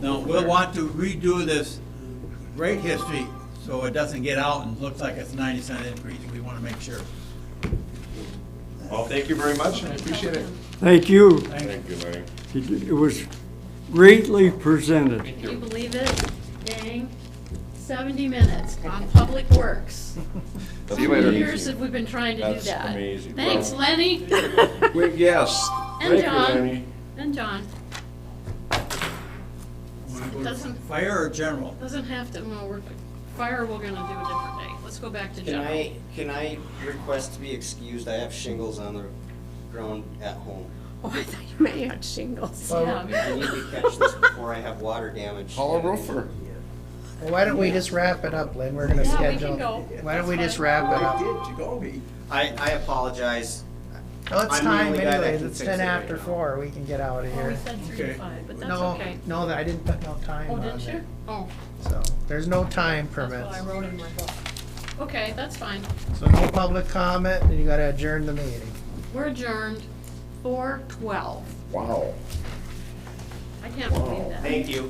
Now, we'll want to redo this rate history so it doesn't get out and looks like it's ninety cent increase. We want to make sure. Well, thank you very much, and I appreciate it. Thank you. Thank you. you, Larry. It it was greatly presented. Thank Can you you. believe it? Dang, 70 minutes on Public Works. See you later. How many years have we been trying to do That's that? amazing. Thanks, Wow. Lenny. Wait, Yes. And Thank you, John. Lenny. And John. Wanna go to Doesn't- Fire or general? Doesn't have to, well, we're, fire, we're gonna do a different day. Let's go back to Can general. I, can I request to be excused? I have shingles on the ground at home. Oh, I thought you meant you had shingles. Yeah. I need to catch this before I have water damage. Call a roofer. Well, why don't we just wrap it up, Lynn? We're gonna Yeah, we can schedule. go. Why don't we That's just fine. wrap it up? did, you go me. I, I apologize. Well, it's I'm the time only guy that anyways. can It's fix ten it right after now. four. We can get out of Well, we here. said three to Okay. five, but that's No, okay. no, I didn't put no time Oh, on didn't you? it. Oh, So, there's no time that's what permits. I wrote in my book. Okay, that's fine. So no public comment, and you gotta adjourn the meeting. We're adjourned, 4:12. Wow. I can't believe that. Thank you.